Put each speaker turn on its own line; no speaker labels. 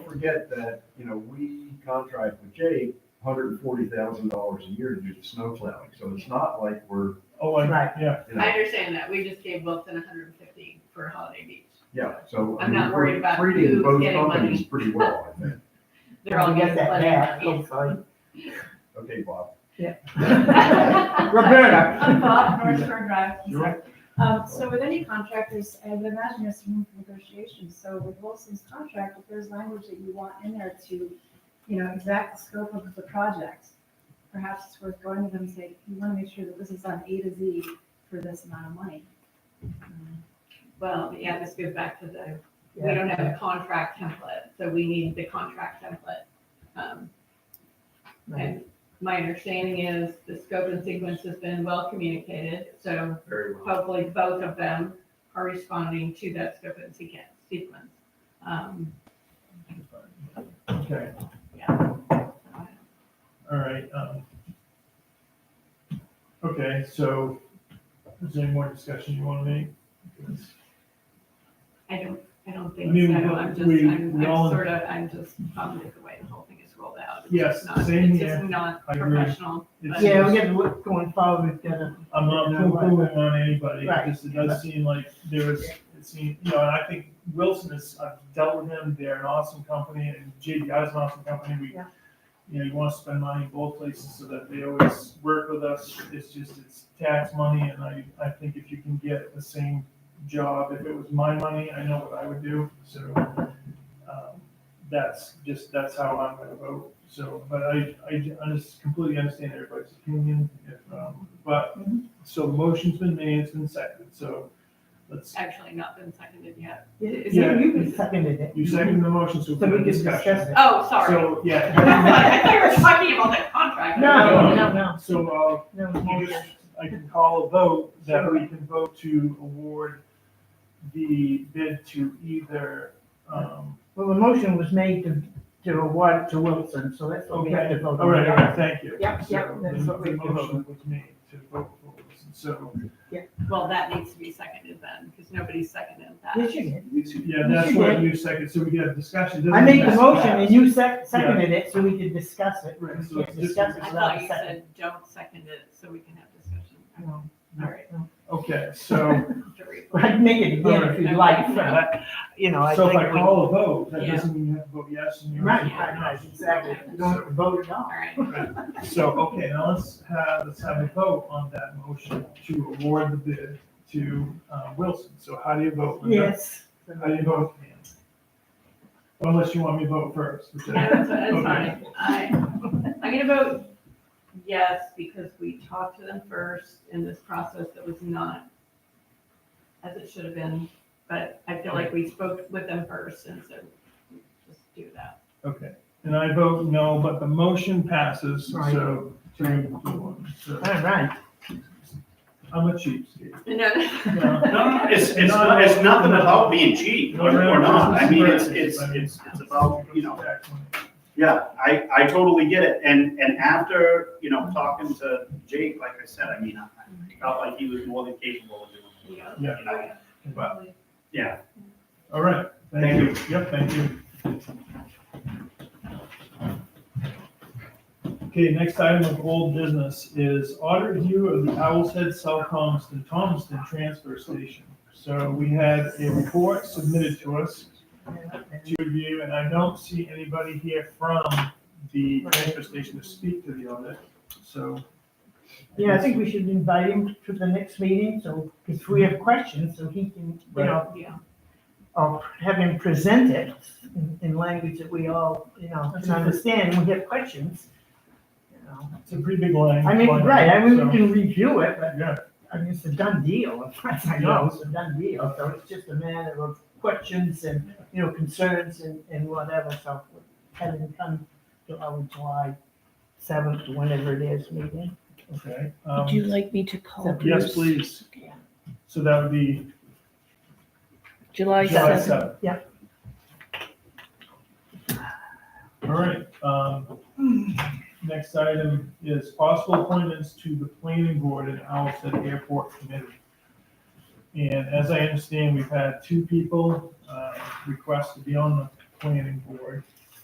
forget that, you know, we contract with Jake hundred and forty thousand dollars a year to do the snow plowing, so it's not like we're,
Oh, I,
Right.
yeah,
you
I
know,
understand that, we just gave Wilson hundred and fifty for Holiday Beach.
yeah, so. I
I'm
mean,
not
we're
worried about
Treating
who's
both
getting money.
companies pretty well, I think.
They're all getting
Get that
plenty
back,
of money.
hopefully.
Okay, Bob.
Roberta.
Bob, North Shore Drive, I'm sorry.
Sure.
Um, so with any contractors, I would imagine there's room for negotiations, so with Wilson's contract, if there's language that you want in there to, you know, exact the scope of the project, perhaps it's worth going to them and say, you wanna make sure that this is on A to Z for this amount of money.
Well, yeah, this goes back to the, we don't have a contract template, so we need the contract template. Um,
Right.
And my understanding is the scope and sequence has been well communicated, so
Very well.
hopefully both of them are responding to that scope and sequen- sequence. Um,
okay, all right, um. Okay, so, is there any more discussion you wanna make?
I don't, I don't
I
think
mean,
so,
we-
I'm just,
we-
I'm,
we
I'm
all-
sort of, I'm just bummed at the way the whole thing is rolled out. It's
Yes,
just not-
same
It's just
here.
not
I agree.
professional.
It's-
Yeah, we got to look going forward, we've got to,
I'm not
You know what?
poo-pooing on anybody,
Right.
because it does seem like there was, it seemed, you know, and I think Wilson is, I've dealt with him, they're an awesome company, and JDI is an awesome company, we,
Yeah.
you know, you wanna spend money in both places so that they always work with us, it's just, it's tax money, and I, I think if you can get the same job, if it was my money, I know what I would do, so, um, that's just, that's how I'm gonna vote, so, but I, I, I just completely understand everybody's opinion, if, um, but,
Mm-hmm.
so the motion's been made, it's been seconded, so let's,
It's actually not been seconded yet.
you
Yeah.
you seconded it.
you second the motion, so
So
we
we can
can
discuss
discuss.
it.
Oh, sorry.
So, yeah.
I thought you were talking about the contract.
No, no, no,
So,
no.
uh,
no.
you just- I can call a vote that we can vote to award the bid to either, um,
Well, the motion was made to, to award it to Wilson, so that's what we have to
Okay,
vote
all right, all
on.
right, thank you.
Yep,
So,
yep, that's what we
The
can
motion was made to vote for this, and so,
Well, that needs to be seconded then, because nobody seconded
Yes,
that.
you did.
yeah, that's
You
what
did.
you second, so we have discussion. doesn't
I made the
just-
motion and you sec- seconded it, so we could discuss it.
Right, so
We
it's
can't
just-
discuss it
I
without
thought
a
you
second.
said don't second it so we can have discussion.
No.
All right.
Okay, so,
to read.
I'd make it again if you'd like, but, you know, I
so if I
think we.
call a vote, that
Yeah.
doesn't mean you have to vote yes and you're.
Right, right, right, exactly. You don't have to vote at
All
all.
right.
So, okay, now let's have, let's have a vote on that motion to award the bid to, uh, Wilson. So how do you vote? Linda?
Yes.
How do you vote? Pam? Unless you want me to vote first. which
No,
I-
That's that's
Okay.
fine. I, I'm gonna vote yes, because we talked to them first in this process that was not as it should have been, but I feel like we spoke with them first, and so just do that.
Okay, and I vote no, but the motion passes,
Right.
so two to one. So
All right.
I'm a cheapskate.
And then-
No,
No, no, it's, it's, not- it's nothing about being cheap or or not. I mean, it's, it's, it's, it's about, you know, yeah, I, I totally get it. And, and after, you know, talking to Jake, like I said, I mean, I I felt like he was more than capable of doing it.
Yeah.
You know, Yeah,
All right, thank you. Yep, thank you. Okay, next item of old business is audit review of the Owl's Head, South Thomaston, Thomaston Transfer Station. So we had a report submitted to us to review, and I don't see anybody here from the transfer station to speak to the audit, so.
Yeah, I think we should invite him to the next meeting, so if we have questions, so he can, you know,
Yeah,
or have him present it in, in language that we all, you know, can understand, we have questions. you know.
It's a pretty big line.
I mean, right, I mean, we
So,
can review it, but
Yeah,
I mean, it's a done deal, as far as I know, it's a done deal, so it's just a matter of questions and, you know, concerns and, and whatever, so having come to our July seventh, whenever it is, meeting.
okay. um,
Would you like me to call
Seven.
Yes,
Bruce?
please.
Okay.
So that would be
July
July
7th.
seventh.
Yeah.
All right, um, next item is possible appointments to the planning board and Owlshead Airport Committee. And as I understand, we've had two people, uh, request to be on the planning board.